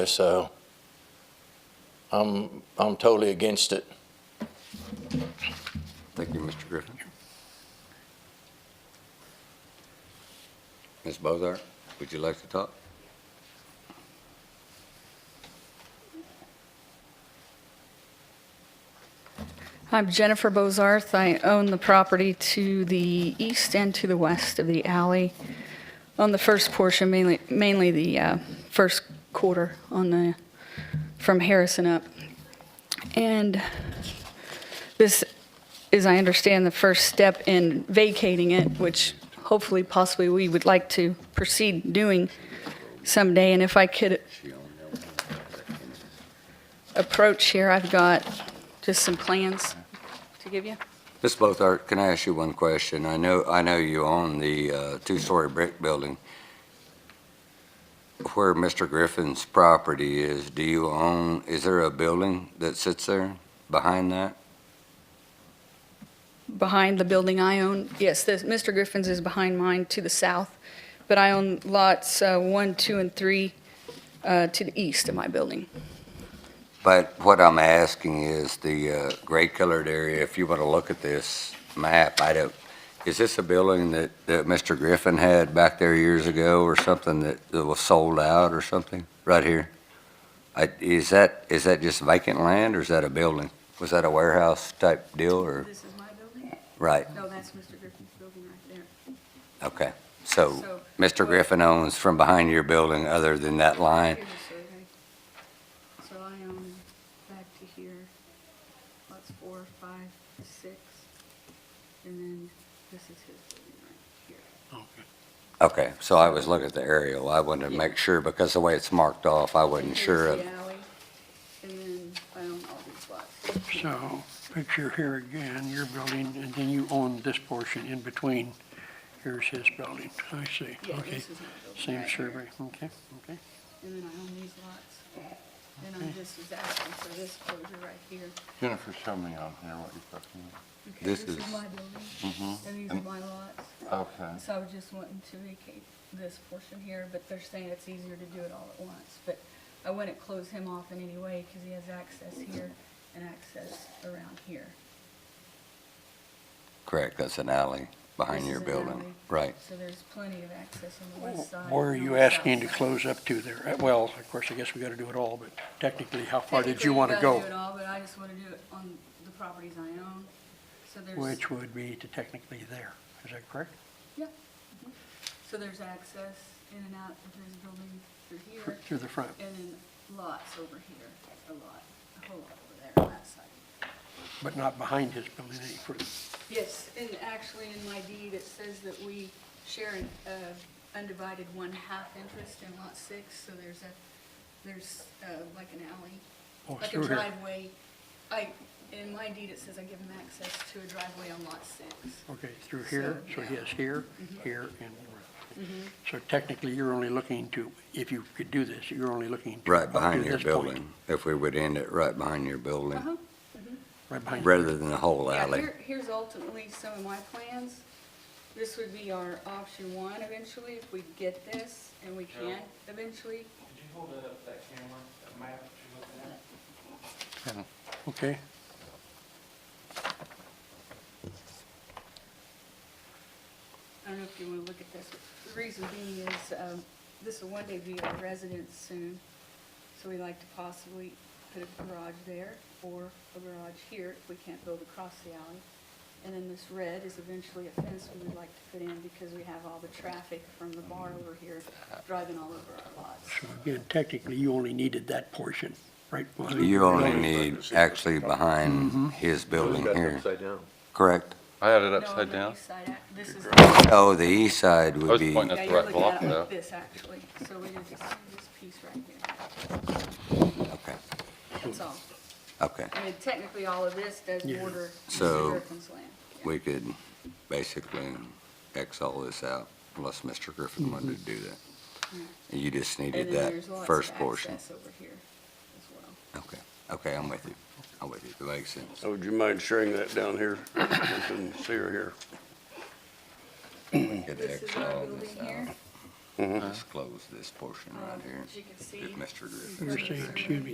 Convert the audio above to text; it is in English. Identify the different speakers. Speaker 1: So I'm, I'm totally against it.
Speaker 2: Thank you, Mr. Griffin. Ms. Bozart, would you like to talk?
Speaker 3: I'm Jennifer Bozarth. I own the property to the east and to the west of the alley. On the first portion, mainly, mainly the uh, first quarter on the, from Harrison up. And this is, I understand, the first step in vacating it, which hopefully, possibly, we would like to proceed doing someday. And if I could approach here, I've got just some plans to give you.
Speaker 2: Ms. Bozart, can I ask you one question? I know, I know you own the uh, two-story brick building. Where Mr. Griffin's property is, do you own, is there a building that sits there behind that?
Speaker 3: behind the building I own. Yes, this, Mr. Griffin's is behind mine to the south, but I own lots uh, one, two, and three uh, to the east of my building.
Speaker 2: But what I'm asking is the uh, gray colored area, if you want to look at this map, I don't, is this a building that, that Mr. Griffin had back there years ago or something that that was sold out or something, right here? I- Is that, is that just vacant land or is that a building? Was that a warehouse type deal or,
Speaker 3: This is my building?
Speaker 2: right,
Speaker 3: No, that's Mr. Griffin's building right there.
Speaker 2: okay. So Mr. Griffin owns from behind your building other than that line?
Speaker 3: So I own back to here, lots four, five, six, and then this is his building right here.
Speaker 2: Okay, so I was looking at the aerial. I wanted to make sure because the way it's marked off, I wasn't sure of.
Speaker 3: Here's the alley, and then I own all these lots.
Speaker 4: So, picture here again, your building, and then you own this portion in between. Here's his building. I see.
Speaker 3: Yeah,
Speaker 4: Okay.
Speaker 3: this is my building
Speaker 4: Same
Speaker 3: right here.
Speaker 4: survey. Okay, okay.
Speaker 3: And then I own these lots. And I'm just as asking for this closure right here.
Speaker 5: Jennifer, show me on here what you're talking
Speaker 3: Okay,
Speaker 2: This
Speaker 3: This
Speaker 2: is-
Speaker 3: is my building,
Speaker 4: Mm-hmm.
Speaker 3: and these are
Speaker 5: And-
Speaker 3: my lots.
Speaker 5: about. Okay.
Speaker 3: So I was just wanting to vacate this portion here, but they're saying it's easier to do it all at once. But I wouldn't close him off in any way because he has access here and access around here.
Speaker 2: Correct, that's an alley behind
Speaker 3: This
Speaker 2: your
Speaker 3: is an alley.
Speaker 2: building. Right.
Speaker 3: So there's plenty of access on the west side.
Speaker 4: Where are
Speaker 3: and
Speaker 4: you
Speaker 3: on the south
Speaker 4: asking to
Speaker 3: side.
Speaker 4: close up to there? Uh, Well, of course, I guess we got to do it all, but technically, how far did you want to
Speaker 3: Technically,
Speaker 4: go?
Speaker 3: we've gotta do it all, but I just wanna do it on the properties I own, so there's,
Speaker 4: Which would be to technically there. Is that correct?
Speaker 3: so there's access in and out of this building through here,
Speaker 4: Through the front.
Speaker 3: and then lots over here, a lot, a whole lot over there on that side.
Speaker 4: But not behind his building any further.
Speaker 3: Yes, and actually in my deed, it says that we share an uh, undivided one-half interest in lot six, so there's a, there's uh, like an alley
Speaker 4: Oh,
Speaker 3: like a
Speaker 4: through here.
Speaker 3: driveway. I, in my deed, it says I give him access to a driveway on lot six.
Speaker 4: Okay, through here,
Speaker 3: So,
Speaker 4: so
Speaker 3: yeah. Mm-hmm.
Speaker 4: yes, here, here, and around. So technically, you're only looking to, if you could do this, you're only looking to. up
Speaker 2: Right
Speaker 4: to
Speaker 2: behind your
Speaker 4: this point,
Speaker 2: building, if we would end it right behind your building,
Speaker 4: Right behind,
Speaker 2: rather than the whole
Speaker 3: Uh-huh. Yeah,
Speaker 2: alley.
Speaker 3: here, here's ultimately some of my plans. This would be our option one eventually, if we get this, and we can eventually.
Speaker 6: Could you hold it up, that camera, that map that you're looking at?
Speaker 4: okay.
Speaker 3: I don't know if you wanna look at this. The reason being is, um, this will one day be our residence soon, so we'd like to possibly put a garage there or a garage here if we can't build across the alley. And then this red is eventually a fence we would like to put in because we have all the traffic from the bar over here driving all over our lots.
Speaker 4: So again, technically, you only needed that portion, right? behind
Speaker 2: You
Speaker 4: your
Speaker 2: only
Speaker 4: building. Mm-hmm.
Speaker 2: need actually behind his building here,
Speaker 7: Upside down.
Speaker 2: correct?
Speaker 5: I had it
Speaker 3: No, on
Speaker 5: upside
Speaker 3: the
Speaker 5: down.
Speaker 3: east side, ac- This is.
Speaker 2: Oh, the east side
Speaker 5: I
Speaker 2: would
Speaker 5: was
Speaker 2: be,
Speaker 5: pointing
Speaker 3: Yeah,
Speaker 5: at the
Speaker 3: you're
Speaker 5: right
Speaker 3: looking at
Speaker 5: block
Speaker 3: it
Speaker 5: though.
Speaker 3: like this actually, so we just see this piece right here.
Speaker 2: okay,
Speaker 3: That's all.
Speaker 2: okay.
Speaker 3: I mean, technically, all of this does
Speaker 4: Yeah.
Speaker 3: border
Speaker 2: So-
Speaker 3: Mr. Griffin's land. Yeah.
Speaker 2: We could basically X all this out unless Mr. Griffin wanted to do that. You just
Speaker 3: Mm-hmm. And
Speaker 2: needed
Speaker 3: then
Speaker 2: that
Speaker 3: there's lots of
Speaker 2: first portion.
Speaker 3: access over here as well.
Speaker 2: Okay, okay, I'm with you. I'm with you. That makes sense.
Speaker 7: So would you mind sharing that down here? I can see her here.
Speaker 2: We could
Speaker 3: This is
Speaker 2: X
Speaker 3: our
Speaker 2: all
Speaker 3: building
Speaker 2: this out.
Speaker 3: here. Uh,
Speaker 2: Let's close this portion right here.
Speaker 8: As you can
Speaker 2: If Mr. Griffin.
Speaker 3: You're saying, excuse me,